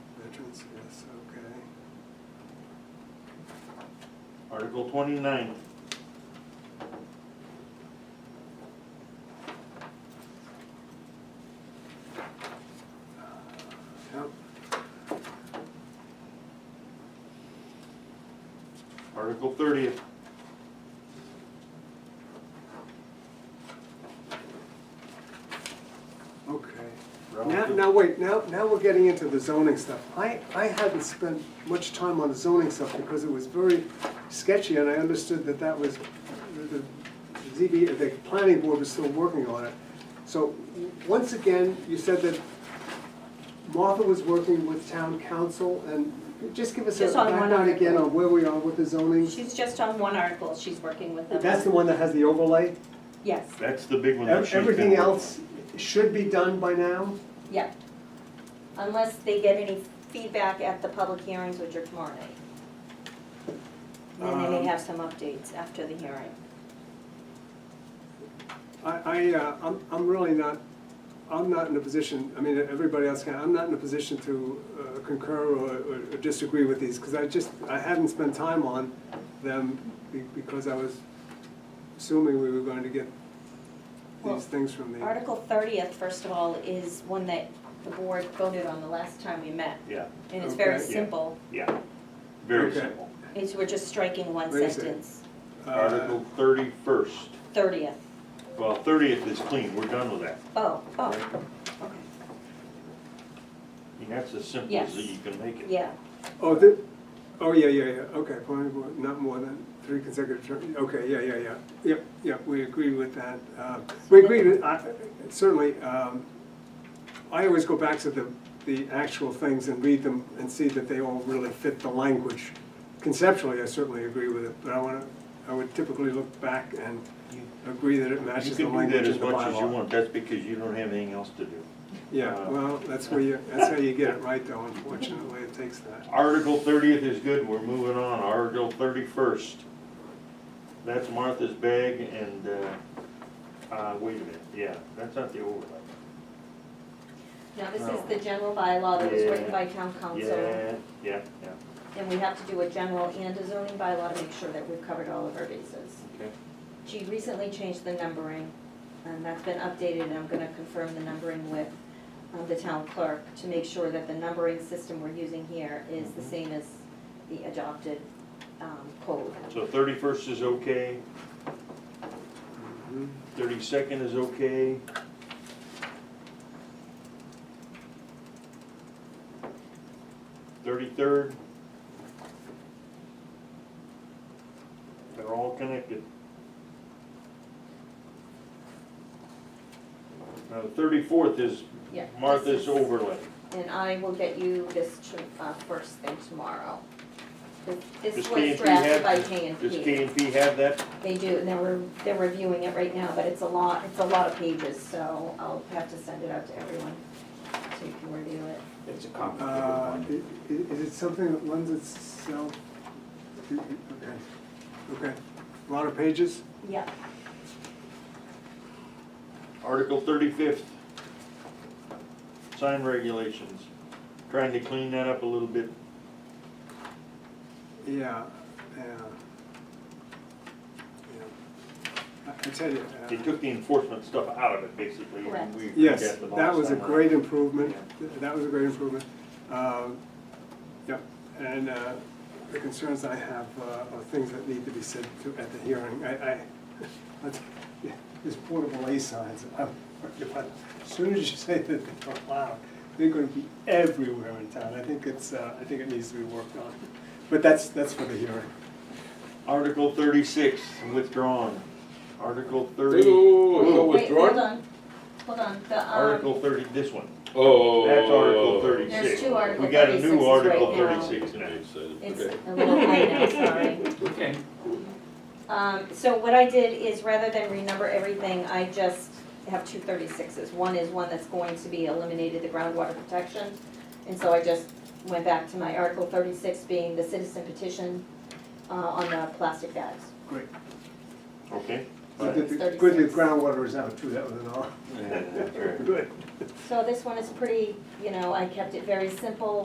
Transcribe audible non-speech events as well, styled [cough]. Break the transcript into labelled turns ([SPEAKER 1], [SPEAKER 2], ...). [SPEAKER 1] Article twenty-nine.
[SPEAKER 2] Yep.
[SPEAKER 1] Article thirty.
[SPEAKER 2] Okay. Now,
[SPEAKER 1] relative-
[SPEAKER 2] now, wait, now, now we're getting into the zoning stuff. I, I hadn't spent much time on the zoning stuff because it was very sketchy and I understood that that was, the the ZB, the planning board was still working on it. So, once again, you said that Martha was working with town council and just give us a
[SPEAKER 3] Just on one
[SPEAKER 2] background again
[SPEAKER 3] article.
[SPEAKER 2] on where we are with the zoning.
[SPEAKER 3] She's just on one article, she's working with them.
[SPEAKER 2] That's the one that has the overlay?
[SPEAKER 3] Yes,
[SPEAKER 1] That's the big one that she's been
[SPEAKER 2] Everything
[SPEAKER 1] working-
[SPEAKER 2] else should be done by now?
[SPEAKER 3] yeah. Unless they get any feedback at the public hearings, which are tomorrow night. And then they
[SPEAKER 2] Um,
[SPEAKER 3] may have some updates after the hearing.
[SPEAKER 2] I, I, uh, I'm, I'm really not, I'm not in a position, I mean, everybody else can, I'm not in a position to uh, concur or, or disagree with these, because I just, I hadn't spent time on them be- because I was assuming we were going to get
[SPEAKER 3] Well,
[SPEAKER 2] these things from the,
[SPEAKER 3] Article thirtieth, first of all, is one that the board voted on the last time we met.
[SPEAKER 1] Yeah,
[SPEAKER 3] And it's very
[SPEAKER 2] Okay.
[SPEAKER 1] Yeah.
[SPEAKER 3] simple,
[SPEAKER 1] yeah, very
[SPEAKER 2] Okay.
[SPEAKER 1] simple.
[SPEAKER 3] it's, we're just striking one
[SPEAKER 2] Wait a second.
[SPEAKER 3] sentence,
[SPEAKER 2] uh,
[SPEAKER 1] Article thirty-first,
[SPEAKER 3] thirtieth.
[SPEAKER 1] well, thirtieth is clean, we're done with that.
[SPEAKER 3] Oh, oh,
[SPEAKER 1] right?
[SPEAKER 3] okay,
[SPEAKER 1] I mean, that's as simple as
[SPEAKER 3] Yes.
[SPEAKER 1] you can make it.
[SPEAKER 3] yeah,
[SPEAKER 2] oh, the, oh, yeah, yeah, yeah, okay, planning board, not more than three consecutive terms, okay, yeah, yeah, yeah, yep, yep, we agree with that. Uh, We agree, with- I- certainly, um, I always go back to the, the actual things and read them and see that they all really fit the language. Conceptually, I certainly agree with it, but I wanna, I would typically look back and
[SPEAKER 1] You-
[SPEAKER 2] agree that it
[SPEAKER 1] You
[SPEAKER 2] matches the
[SPEAKER 1] can do
[SPEAKER 2] language
[SPEAKER 1] that
[SPEAKER 2] in
[SPEAKER 1] as
[SPEAKER 2] the
[SPEAKER 1] much as you
[SPEAKER 2] bylaw.
[SPEAKER 1] want, Uh, that's because you don't have anything else to do.
[SPEAKER 2] Yeah, well, that's where you, that's how you get it right though, unfortunately, it takes that.
[SPEAKER 1] Article thirtieth is good, we're moving on, Article thirty-first. That's Martha's bag and, uh, uh, wait a minute, yeah, that's not the overlay.
[SPEAKER 3] now this
[SPEAKER 1] No.
[SPEAKER 3] is the general bylaw that was written
[SPEAKER 1] Yeah.
[SPEAKER 3] by town council.
[SPEAKER 1] Yeah, yeah, yeah,
[SPEAKER 3] And we have to do a general and a zoning bylaw to make sure that we've covered all of our bases.
[SPEAKER 1] okay.
[SPEAKER 3] She recently changed the numbering, and that's been updated, and I'm gonna confirm the numbering with um, the town clerk to make sure that the numbering system we're using here is the
[SPEAKER 1] Mhm.
[SPEAKER 3] same as the adopted um, code.
[SPEAKER 1] So thirty-first is okay,
[SPEAKER 2] Mhm.
[SPEAKER 1] thirty-second is okay. Thirty-third. They're all connected. Now, thirty-fourth is
[SPEAKER 3] Yeah, this
[SPEAKER 1] Martha's
[SPEAKER 3] is-
[SPEAKER 1] overlay.
[SPEAKER 3] And I will get you this tr- uh, first thing tomorrow. This-
[SPEAKER 1] Does
[SPEAKER 3] This was
[SPEAKER 1] K&P have-
[SPEAKER 3] drafted by K and P.
[SPEAKER 1] Does K and P have that?
[SPEAKER 3] They do, and they're, they're reviewing it right now, but it's a lot, it's a lot of pages, so I'll have to send it out to everyone, so you can review it.
[SPEAKER 4] It's a
[SPEAKER 2] Uh,
[SPEAKER 4] complicated one.
[SPEAKER 2] i- i- Is it something that lends itself? Okay, okay, a lot of pages?
[SPEAKER 3] Yeah.
[SPEAKER 1] Article thirty-fifth. Sign regulations. Trying to clean that up a little bit.
[SPEAKER 2] Yeah, yeah. Yeah. I I tell you. uh,
[SPEAKER 1] They took the enforcement stuff out of it, basically. and we
[SPEAKER 2] Yes,
[SPEAKER 1] forget the
[SPEAKER 2] that
[SPEAKER 1] last
[SPEAKER 2] was a
[SPEAKER 1] time
[SPEAKER 2] great improvement, that was a great improvement. Um, Yep, and uh, the concerns I have uh, are things that need to be said to- at the hearing. I, [laughs] I, but, yeah, there's portable A signs, I'm worried about, as soon as you say that they're allowed, they're gonna be everywhere in town. I think it's, uh, I think it needs to be worked on, but that's, that's for the hearing.
[SPEAKER 1] Article thirty-six, withdrawn. Article
[SPEAKER 5] Wait,
[SPEAKER 1] thirty,
[SPEAKER 5] wait, wait, wait,
[SPEAKER 1] Whoa.
[SPEAKER 5] wait, withdrawn?
[SPEAKER 3] Wait, hold on, hold on, the, um.
[SPEAKER 1] Article thirty, this one.
[SPEAKER 5] Oh.
[SPEAKER 1] That's Article thirty-six.
[SPEAKER 3] There's two Article
[SPEAKER 1] We got a
[SPEAKER 3] 36s
[SPEAKER 1] new Article
[SPEAKER 3] right now.
[SPEAKER 1] thirty-six now.
[SPEAKER 3] It's
[SPEAKER 5] Okay.
[SPEAKER 3] a little late now, sorry.
[SPEAKER 4] Okay.
[SPEAKER 3] Um, so what I did is rather than renumber everything, I just have two thirty-sixes. One is one that's going to be eliminated, the groundwater protection. And so I just went back to my Article thirty-six being the citizen petition, uh, on the plastic bags.
[SPEAKER 2] Great.
[SPEAKER 1] Okay?
[SPEAKER 2] Good
[SPEAKER 1] Fine.
[SPEAKER 2] that the- good that groundwater is out too, that was an all.
[SPEAKER 1] Yeah, that's right.
[SPEAKER 2] Good.
[SPEAKER 3] So this one is pretty, you know, I kept it very simple,